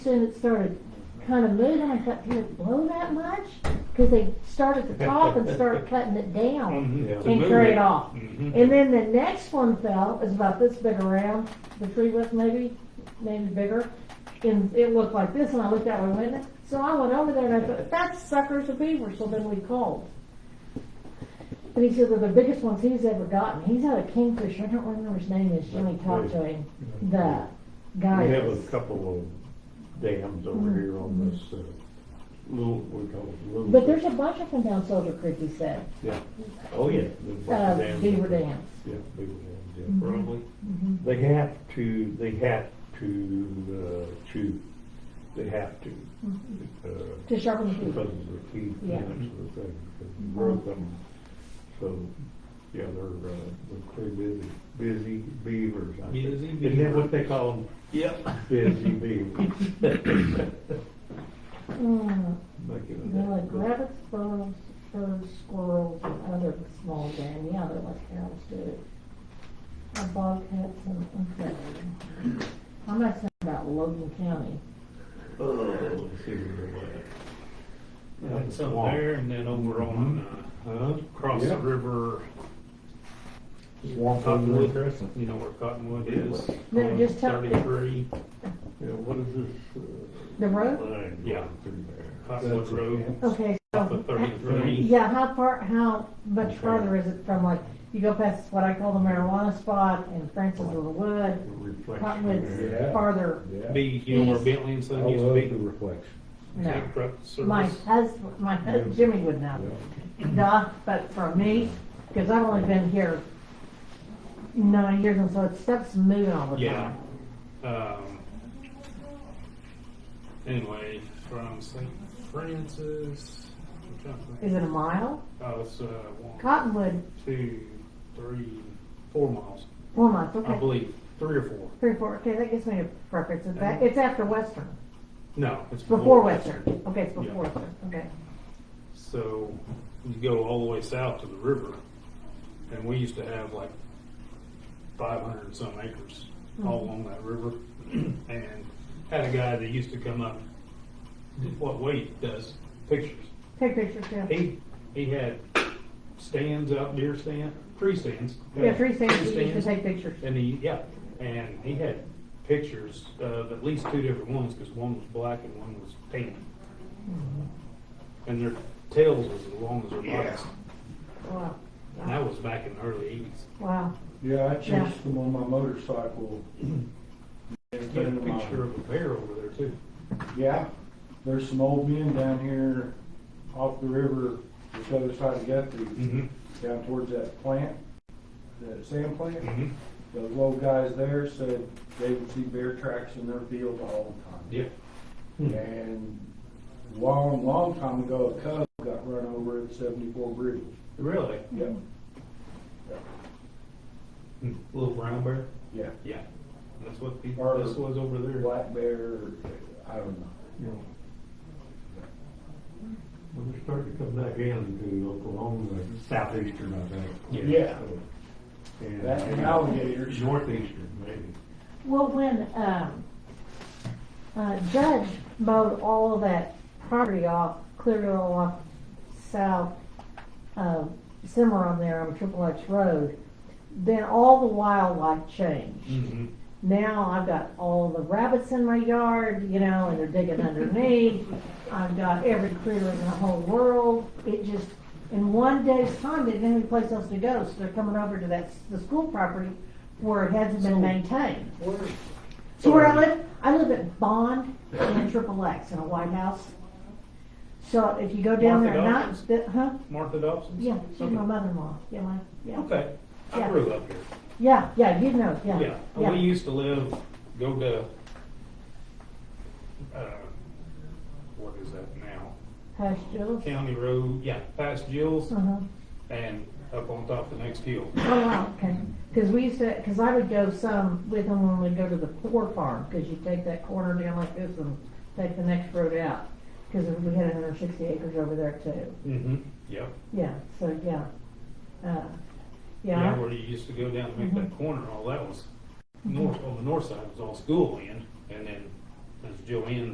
soon it started kind of moving. I thought, did it blow that much? Because they start at the top and start cutting it Mm-hmm. down Mhm, to and move carry it it. off. Mhm. And then the next one fell, it was about this big around, the tree was maybe, maybe bigger. And it looked like this, and I looked that way, went it? So I went over there and I thought, that sucker's a beaver, so then we called. And he said, they're the biggest ones he's ever gotten. He's had a kingfisher, I don't remember his name, is Jimmy talked to him, the guy. We have a that's- couple of dams over Mm-hmm. here on this, uh, little, we call it little. But there's a bunch of them down Soldier Creek, he said, Yeah, oh, yeah. there's uh, lots of dams beaver Mm-hmm. up there. dams. Yeah, beaver dams, yeah. Probably. They have to, they have to, uh, chew, they have to. uh, Mm-hmm. To sharpen the Because beak. of the teeth, Yeah. Mm-hmm. that's the thing, because you broke them. So, yeah, they're, uh, they're pretty busy, busy beavers. I think. Busy Isn't that beavers. what they call them, Yep. busy beavers? Mm, Making They're it like up. rabbits, birds, birds, squirrels, and other small game, yeah, they're like cows do. Uh, Bobcats and, okay. I'm not saying about Logan County. Oh, see where they're at. That's up there and then over Mm-hmm. on, Huh? uh, across the Yeah. river, Swamp over Cottonwood. there. Crescent. you know where Cottonwood is. No, on just tell- Thirty-three, Yeah, what is this? The uh, road? line Yeah. through there? Cottonwood That's it. Road, Okay, off of so, thirty-three. yeah, how far, how much farther is it from like, you go past what I call the marijuana spot and Francis of the Wood, Reflection Cottonwood's there. Yeah. farther, Be, you know where Bentley and I Son used to love the be? reflection. no. Tank truck My service. husband, my husband, Jimmy would know. Nah, but for me, because I've only been here nine years, and so it stuff's moving all the Yeah. time. Um, anyway, from St. Francis, I'm trying to think. Is it a mile? Oh, it's, uh, one, Cottonwood, two, three, four miles, four months, I okay. believe, three or four. Three, four, okay, that gives me a preference. It's back, it's after Western, No, it's before Western. Okay, it's before Yeah. Western, okay. So you go all the way south to the river, and we used to have like 500 and some acres Mm-hmm. all along that river, and had a guy that used to come up. did What Wade does pictures. Take pictures, yeah. He he had stands out, deer stand, tree stands. Yeah, three stations, you used to stands. take pictures. And he, yeah, and he had pictures of at least two different ones, because one was black and one was tan. And their tails was as long as their bodies. Wow, And that was back in the early eighties. wow. Yeah, I Yeah. chased them on my motorcycle. You had a picture of a bear over there too. Yeah, there's some old men down here off the river, the other side of Mm-hmm. Guthrie, down towards that plant, that sand plant. Mhm. Those old guys there said they would see bear tracks in their field all the Yeah. time. Hmm. And long, long time ago, a cub got run over at seventy-four bridge. Really? Yeah, Little brown bear? yeah. Hmm. Yeah. That's what the, Or- this was over there. Black bear, I don't know. When we started to come back into Oklahoma, like southeastern, I think. Yeah. Yeah. And That and alligators. Northeastern, maybe. Well, when, um, uh, Judge mowed all of that property off, cleared it all off south, uh, Cimarron there on Triple X Road, then all the wildlife changed. Mm-hmm. Now I've got all the rabbits in my yard, you know, and they're digging underneath. I've got every critter in the whole world. It just, in one day's time, they didn't have any place else to go, so they're coming over to that, the school property where it hasn't been maintained. So where I live, I live at Bond and Triple X in a White House. So if you go down there Martha at night, Dawkins? the- huh? Martha Dobson's? Yeah, she's my Okay. mother-in-law. Yeah, my, yeah. Okay. I Yeah. grew up here. Yeah, yeah, you know, yeah. Yeah, we used to live, go to, uh, what is that now? Hush, Jules. County Road, yeah, past Jill's Uh-huh. and up on top of the next hill. Oh, wow, okay. Because we used to, because I would go some with them when we'd go to the poor farm, because you take that corner down like this and take the next road out. Because we had another sixty acres over there too. Mm-hmm. Yep. Yeah, so, yeah. Uh, Yeah, Yeah, where you used to go down to make that corner, all that was north, on the north side was all school land. And then as Jill Ann